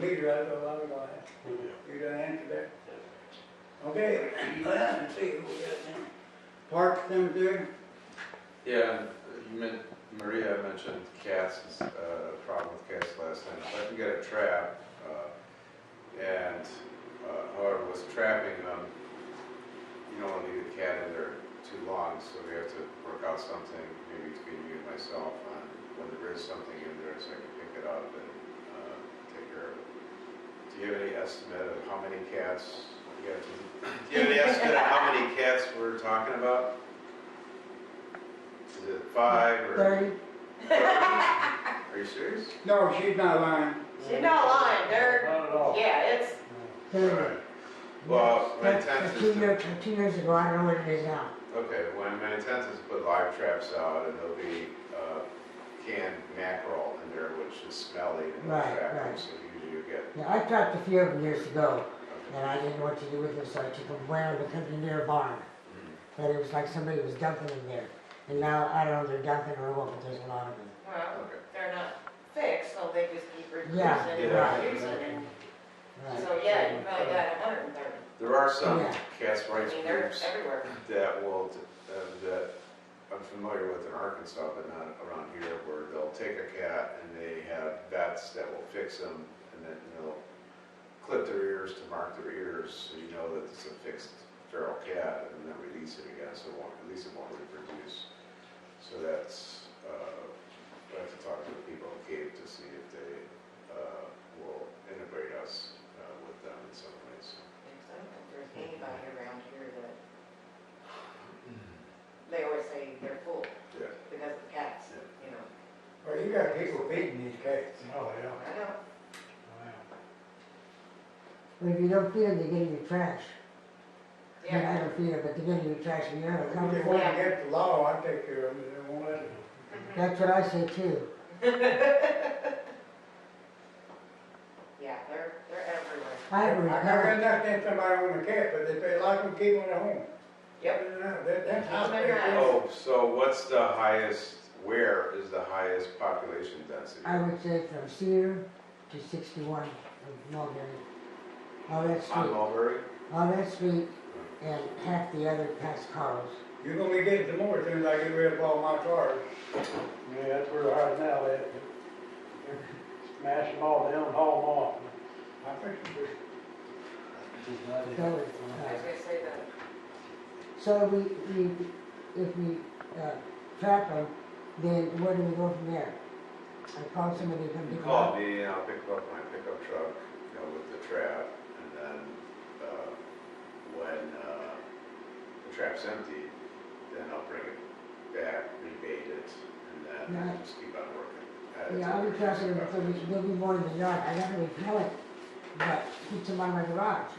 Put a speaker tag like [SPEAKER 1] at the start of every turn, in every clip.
[SPEAKER 1] figure out a while ago, you got an answer there? Okay, go ahead and see who we got now. Park Cemetery,
[SPEAKER 2] Yeah, and you meant, Maria mentioned Cass's, uh, problem with Cass last time. If I can get a trap, uh, and, uh, however, was trapping them, you don't wanna leave the cat in there too long, so we have to work out something, maybe between you and myself, on when there is something in there, so I can pick it up and, uh, take care of it. Do you have any estimate of how many cats, you have to- do you have any estimate of how many cats we're talking about? Is it five or?
[SPEAKER 1] thirty,
[SPEAKER 2] Are you serious?
[SPEAKER 1] no, she's not lying.
[SPEAKER 3] She's not lying, they're,
[SPEAKER 4] Not at all.
[SPEAKER 3] yeah, it's,
[SPEAKER 2] Alright. Well, my intent is
[SPEAKER 5] Two years,
[SPEAKER 2] to,
[SPEAKER 5] two years ago, I don't know what it is now.
[SPEAKER 2] okay, when my intent is to put live traps out and there'll be, uh, canned mackerel in there, which is smelly and
[SPEAKER 5] Right,
[SPEAKER 2] attractive,
[SPEAKER 5] right.
[SPEAKER 2] so usually you get,
[SPEAKER 5] Now, I trapped a few of them years ago,
[SPEAKER 2] okay,
[SPEAKER 5] and I didn't know what to do with them, so I took them way out of the country near a barn.
[SPEAKER 2] Mm.
[SPEAKER 5] But it was like somebody was dumping them there. And now, I don't know if they're dumping or what, but there's a lot of them.
[SPEAKER 3] well,
[SPEAKER 2] okay.
[SPEAKER 3] they're not fixed, so they just keep reducing
[SPEAKER 5] Yeah,
[SPEAKER 3] and
[SPEAKER 2] yeah.
[SPEAKER 3] reducing. and-
[SPEAKER 5] Right.
[SPEAKER 3] So, yeah, you probably got a hundred and thirty,
[SPEAKER 2] There are some
[SPEAKER 5] Yeah.
[SPEAKER 2] cats'
[SPEAKER 3] I
[SPEAKER 2] rights
[SPEAKER 3] mean, they're
[SPEAKER 2] groups
[SPEAKER 3] everywhere.
[SPEAKER 2] that will, uh, that I'm familiar with in Arkansas, but not around here, where they'll take a cat and they have vets that will fix them and then they'll clip their ears to mark their ears, so you know that it's a fixed feral cat, and then release it again, so it won't, at least it won't reproduce. So that's, uh, I have to talk to the people in Cape to see if they, uh, will integrate us, uh, with them in some ways.
[SPEAKER 3] Because I don't think there's anybody around here that, they always say they're full
[SPEAKER 2] Yeah.
[SPEAKER 3] because of cats, you know.
[SPEAKER 1] Well, you got people beating these cats.
[SPEAKER 4] Oh, yeah.
[SPEAKER 3] I know,
[SPEAKER 5] But if you don't feed them, they get in your trash. I mean, I
[SPEAKER 3] yeah,
[SPEAKER 5] don't feed them, but they get in your trash, and you have a
[SPEAKER 1] If
[SPEAKER 5] cover
[SPEAKER 1] they
[SPEAKER 5] for
[SPEAKER 1] want
[SPEAKER 5] it.
[SPEAKER 1] to get the law, I take care of them, they won't let it.
[SPEAKER 3] Mm-hmm.
[SPEAKER 5] That's what I say too.
[SPEAKER 3] yeah, they're, they're everywhere.
[SPEAKER 5] I have a
[SPEAKER 1] I never
[SPEAKER 5] recovery,
[SPEAKER 1] had nothing against somebody own a cat, but if they like them, keep them at home.
[SPEAKER 3] Yep,
[SPEAKER 1] That, that's how they
[SPEAKER 3] They're
[SPEAKER 1] do.
[SPEAKER 3] not.
[SPEAKER 2] Oh, so what's the highest, where is the highest population density?
[SPEAKER 5] I would say from Cedar to sixty-one of Mulberry. Oh, All that
[SPEAKER 2] On
[SPEAKER 5] street,
[SPEAKER 2] Mulberry?
[SPEAKER 5] all that street and half the other past Carl's.
[SPEAKER 1] You're gonna be getting some more as soon as I get rid of all my cars.
[SPEAKER 4] Yeah, that's where they're hiding out at. Smash them all down, haul
[SPEAKER 1] I think
[SPEAKER 4] them off.
[SPEAKER 5] So,
[SPEAKER 3] I was
[SPEAKER 5] uh,
[SPEAKER 3] gonna say that,
[SPEAKER 5] so we, we, if we, uh, trap them, then where do we go from there? I call somebody to come
[SPEAKER 2] You
[SPEAKER 5] pick them
[SPEAKER 2] call
[SPEAKER 5] up.
[SPEAKER 2] me and I'll pick up my pickup truck, you know, with the trap, and then, uh, when, uh, the trap's empty, then I'll bring it back, rebate it, and then
[SPEAKER 5] Yeah.
[SPEAKER 2] just keep on working. at it.
[SPEAKER 5] Yeah, I'll be trapping them until we, they'll be more in the yard. I gotta repel it, but keep them out of my garage.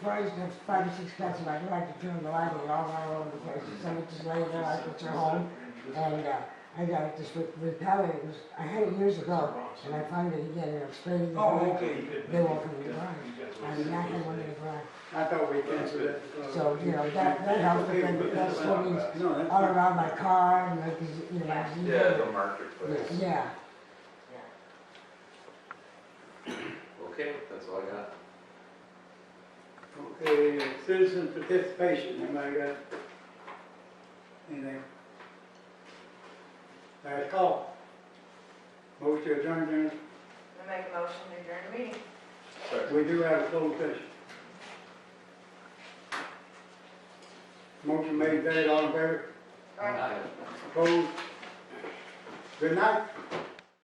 [SPEAKER 5] Before I used to have five or six cats in my garage, you turn the light and all around all over the place, and some would just lay there like it's their home. And, uh, I got it just re- repelled, it was, I had it years ago, and I found it again, and I'm spraying it.
[SPEAKER 1] Oh, okay.
[SPEAKER 5] They won't come in the garage. I mean, I had one in the garage.
[SPEAKER 1] I thought we canceled it.
[SPEAKER 5] So, you know, that, that helps, but then that still means
[SPEAKER 1] No, that's
[SPEAKER 5] all
[SPEAKER 1] not-
[SPEAKER 5] around my car, and like, you know, my.
[SPEAKER 2] Yeah, the marketplace.
[SPEAKER 5] Yeah.
[SPEAKER 3] yeah.
[SPEAKER 2] Okay, that's all I got.
[SPEAKER 1] Okay, citizen participation, anybody got anything? Last call. Motion to adjourn, Jim.
[SPEAKER 3] I make a motion to adjourn the meeting.
[SPEAKER 2] Sorry.
[SPEAKER 1] we do have a closed session. Motion made, carried, all in favor,
[SPEAKER 3] All right.
[SPEAKER 1] opposed? Good night.